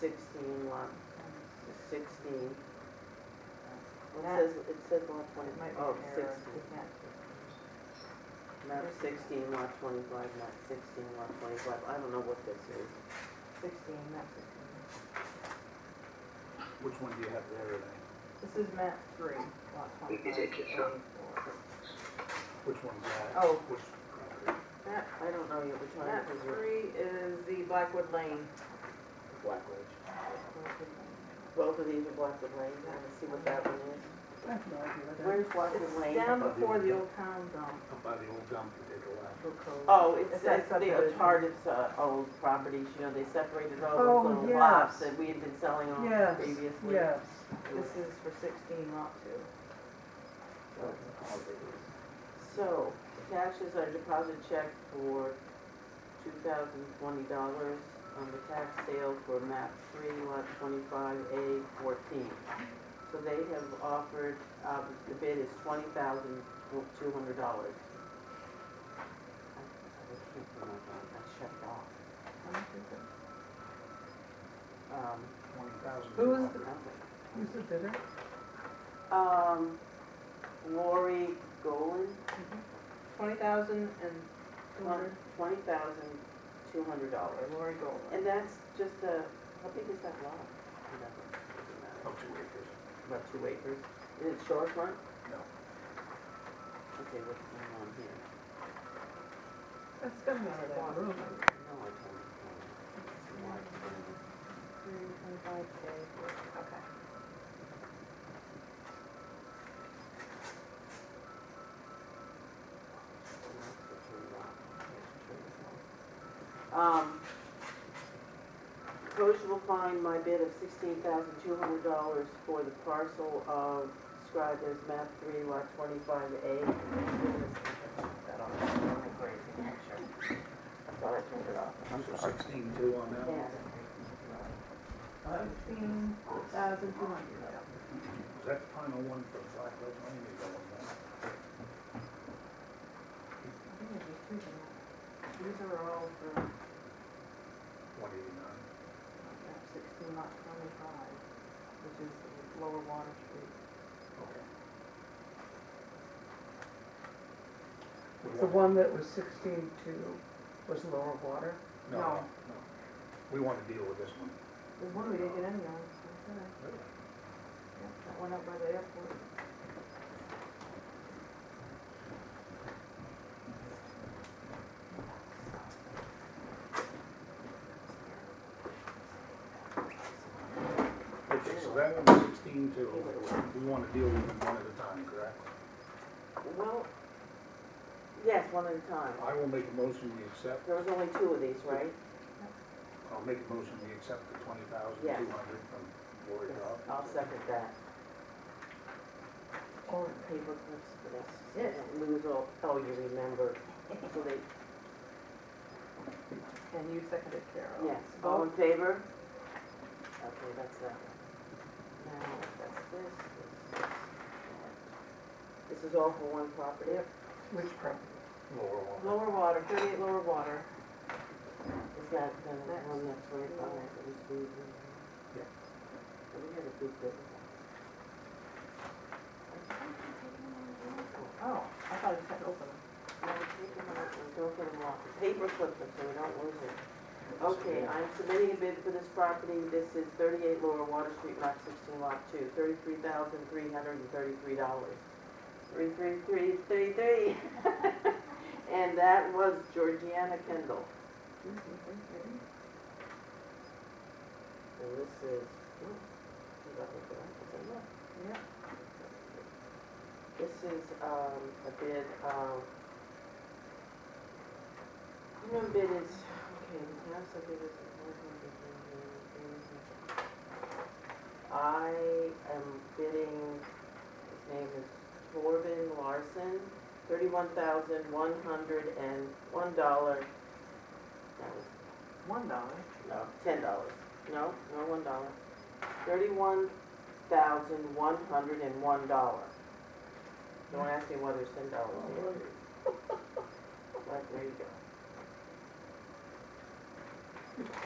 sixteen lot, sixteen. It That- says, it says lot It twenty, might oh, be an error, sixteen, isn't it? not sixteen, lot twenty-five, not sixteen, lot twenty-five, I don't know what this is. Sixteen, not sixteen. Which one do you have there, Renee? This is map three, lot Is it just not- 24. Which one's that? Oh. Which property? That, I don't know yet, which one Map it is. three is the Blackwood Lane. Black Ridge. Both of these are Blackwood Lane, I wanna see what that one is. I have no idea what that is. Where's Blackwood It's Lane? down before the old town dump. Up by the old dump, you take a left. Oh, it's, It's it's that the subdivision. Tardif's, uh, old properties, you know, they separated all Oh, those little yes. lots that we had been selling on Yes, previously. yes. This is for sixteen lot two. So, cash is our deposit check for two thousand twenty dollars on the tax sale for map three lot twenty-five A fourteen. So they have offered, uh, the bid is twenty thousand two hundred dollars. I I can't remember, I checked off. How much is it? Um, Twenty thousand. Who's I was like, Who's the bidder? Um, Lori Golan, Twenty thousand and two hundred. twenty thousand two hundred dollars. Lori Gold. And that's just a, how big is that lot? Doesn't matter. Up Oh, two acres. Oh, About two acres. Is it shorefront? No. Okay, what's going on here? That's gonna be that No, I don't room. know. Why it's going on. Twenty-five K. Okay. Um, Coach will find my bid of sixteen thousand two hundred dollars for the parcel of described as map three lot twenty-five A. That on, on the grazing picture. I thought I turned it off. Sixteen two on that one. Yeah. Sixteen thousand two hundred. Is that the final one for Black Ridge Lane? You go on that. I think there's just two of them. These are all for One eighty-nine. map sixteen lot twenty-five, which is the lower Water Street. Okay. The one that was sixteen-two was lower water. No, No. no. We want to deal with this one. There's one we didn't get any on, so I said, yeah, that went up by the airport. Okay, so that one's sixteen two. We want to deal with them one at a time, correct? Well, yes, one at a time. I will make a motion we accept, There was only two of these, right? I'll make a motion we accept the twenty thousand two hundred from Lori Dobbs. I'll second that. Or paper clips for this. Don't Lose all, oh, you remember, so they, And you seconded Carol. yes, all in Oh, favor? Okay, that's that. Now, that's this, this, this. This is all for one property? Yep. which property? Laurel on Lower water, thirty-eight lower water. uh, Is that the one that's right by that was moved? Yeah. We had a big bit. Oh, I thought you said open. No, take them out and don't get them off. Paper clip them so we don't lose it. Okay, I'm submitting a bid for this property. This is 38 Lower Water Street, lot 16, lot 2, $33,333. 33333. And that was Georgiana Kendall. So this is, ooh, is that what that is? Is that it? Yeah. This is, um, a bid um, of, minimum bid is, okay, the town said bid is. I am bidding, his name is Torben Larson, thirty-one thousand, one hundred and one dollar. That was One dollar. no, ten dollars. No, no, one dollar. Thirty-one thousand, one hundred and one dollar. Don't ask me whether it's ten dollars. But there you go.